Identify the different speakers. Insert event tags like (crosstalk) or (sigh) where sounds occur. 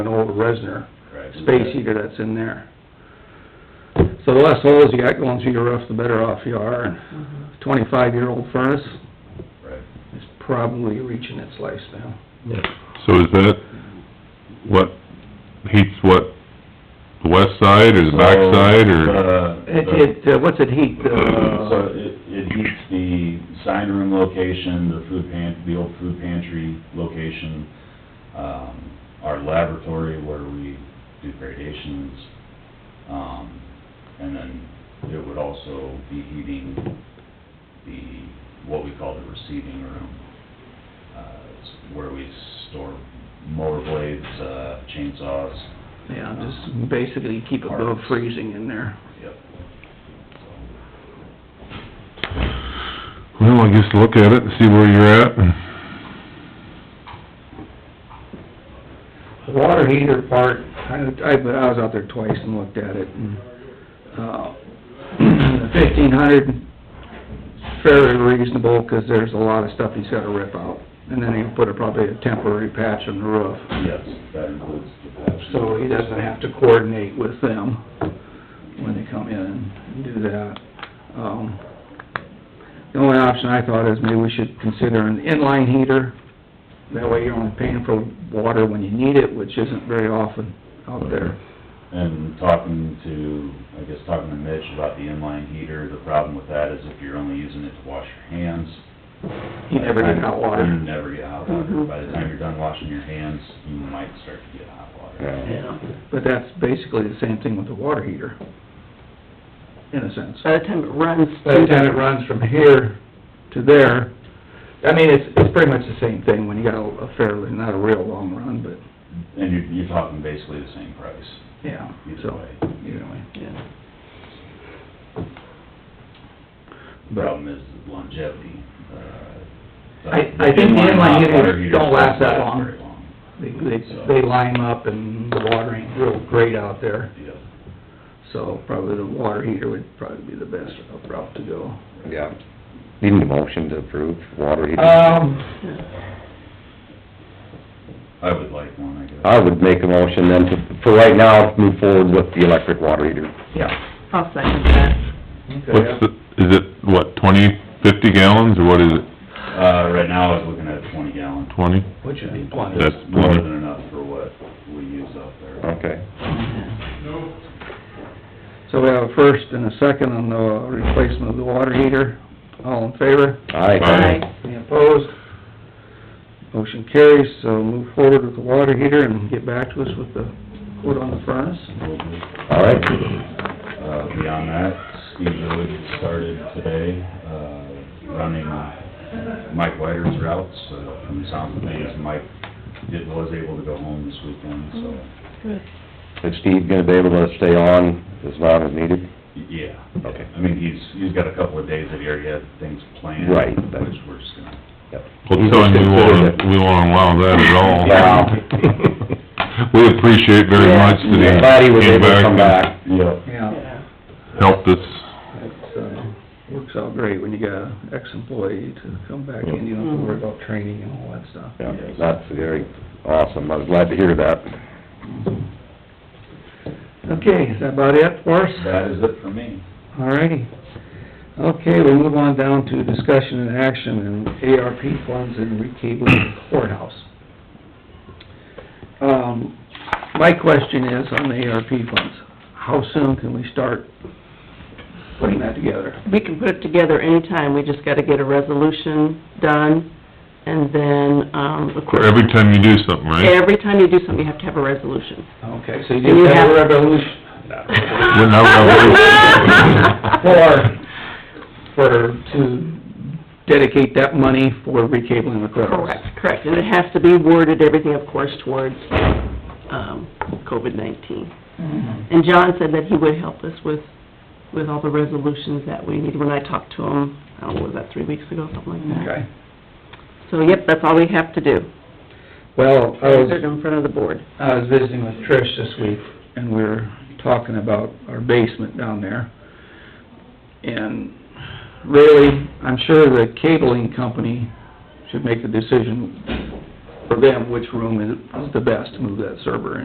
Speaker 1: an old Resner
Speaker 2: Right.
Speaker 1: space heater that's in there. So the less holes you got going through your roof, the better off you are. And Twenty-five-year-old furnace
Speaker 2: Right.
Speaker 1: is probably reaching its lifespan.
Speaker 3: So is that what heats what, the west side or the back side or?
Speaker 2: Uh,
Speaker 1: It, it, uh, what's it heat,
Speaker 2: So
Speaker 1: uh,
Speaker 2: it, it heats the sign room location, the food pan, the old food pantry location, um, our laboratory where we do gradations, um, and then it would also be heating the, what we call the receiving room, uh, it's where we store mower blades, uh, chainsaws, Um,
Speaker 1: yeah, just basically keep it below freezing in there.
Speaker 2: yep.
Speaker 3: Well, I guess look at it and see where you're at and
Speaker 1: The water heater part, I, I, but I was out there twice and looked at it, and, uh, (clears throat) fifteen hundred, fairly reasonable, 'cause there's a lot of stuff he's gotta rip out. And then he put a, probably a temporary patch on the roof,
Speaker 2: Yes, that includes the patch.
Speaker 1: so he doesn't have to coordinate with them when they come in and do that. Um, the only option I thought is maybe we should consider an inline heater, that way you're only paying for water when you need it, which isn't very often out there.
Speaker 2: And talking to, I guess, talking to Mitch about the inline heater, the problem with that is if you're only using it to wash your hands.
Speaker 1: You never get hot
Speaker 2: You
Speaker 1: water. Mm-hmm.
Speaker 2: never get hot water. By the time you're done washing your hands, you might start to get hot water.
Speaker 1: Yeah. But that's basically the same thing with the water heater, in a sense.
Speaker 4: By the time it runs
Speaker 1: By the
Speaker 4: through
Speaker 1: time it
Speaker 4: the,
Speaker 1: runs from here to there, I mean, it's, it's pretty much the same thing when you got a a fairly, not a real long run, but,
Speaker 2: And you're, you're talking basically the same price
Speaker 1: yeah,
Speaker 2: either
Speaker 1: so,
Speaker 2: way.
Speaker 1: either way.
Speaker 4: yeah,
Speaker 2: The Problem is longevity. uh,
Speaker 1: I- I think the inline
Speaker 2: hot
Speaker 1: heaters
Speaker 2: water heaters
Speaker 1: don't last that long.
Speaker 2: very long.
Speaker 1: They, they, they lime up and the water ain't real great out there,
Speaker 2: Yeah.
Speaker 1: so probably the water heater would probably be the best route to go.
Speaker 5: Yeah. Uh, Need a motion to approve water heater?
Speaker 1: Um,
Speaker 2: I would like one, I guess.
Speaker 5: I would make a motion then to, for right now, move forward with the electric water heater.
Speaker 1: yeah.
Speaker 4: I'll second that.
Speaker 3: what's the, is it, what, twenty, fifty gallons or what is it,
Speaker 2: Uh, right now, I was looking at twenty gallon.
Speaker 3: twenty?
Speaker 1: Which would be plenty.
Speaker 3: That's
Speaker 2: It's more
Speaker 3: plenty.
Speaker 2: than enough for what we use out there.
Speaker 5: Okay.
Speaker 1: So we have a first and a second on the replacement of the water heater. All in favor?
Speaker 3: Aye.
Speaker 1: Any opposed? Motion carries, so move forward with the water heater and get back to us with the quote on the furnace.
Speaker 5: All right.
Speaker 2: Uh, beyond that, Steve Wood started today, uh, running uh, Mike Whiter's routes, uh, from the sound of things. Mike did, was able to go home this weekend, so,
Speaker 4: Good.
Speaker 5: Is Steve gonna be able to stay on as long as needed?
Speaker 2: y- yeah.
Speaker 5: Okay.
Speaker 2: I mean, he's, he's got a couple of days that he already had things planned.
Speaker 5: Right, that's-
Speaker 2: Which we're just gonna,
Speaker 5: Yep.
Speaker 3: Well, telling we won't, we won't allow that at all.
Speaker 5: (laughs) Yeah.
Speaker 3: We appreciate very much that he
Speaker 5: I'm Glad he was
Speaker 3: came
Speaker 5: able to
Speaker 3: back
Speaker 5: come
Speaker 3: and
Speaker 5: back.
Speaker 2: yeah,
Speaker 1: Yeah,
Speaker 4: Yeah.
Speaker 3: helped us.
Speaker 1: it's, uh, works out great when you got an ex-employee to come back in, you don't have to worry about training and all that stuff.
Speaker 5: Yeah, That's very awesome. I was glad to hear that.
Speaker 1: Okay, is that about it for us?
Speaker 2: that is it for me.
Speaker 1: All righty. Okay, we move on down to discussion and action and ARP funds and recabling the courthouse. Um, my question is on the ARP funds, how soon can we start putting that together?
Speaker 4: We can put it together anytime, we just gotta get a resolution done, and then, um, of
Speaker 3: For
Speaker 4: course...
Speaker 3: every time you do something, right?
Speaker 4: Every time you do something, you have to have a resolution.
Speaker 1: Okay, so you
Speaker 4: You
Speaker 1: just have a
Speaker 4: have-
Speaker 1: revolution, not a (laughs) revolution,
Speaker 3: Wouldn't have
Speaker 1: for,
Speaker 4: (laughs)
Speaker 1: for, to dedicate that money for recabling the courthouse.
Speaker 4: Correct, correct, and it has to be worded, everything, of course, towards, um, COVID nineteen. And John said that he would help us with, with all the resolutions that we need, when I talked to him, I don't know, was that three weeks ago, something like that?
Speaker 1: Okay,
Speaker 4: So, yep, that's all we have to do,
Speaker 1: well, I was.
Speaker 4: Put it in front of the board.
Speaker 1: I was visiting with Trish this week, and we were talking about our basement down there. And really, I'm sure the cabling company should make the decision for them which room is is the best to move that server in.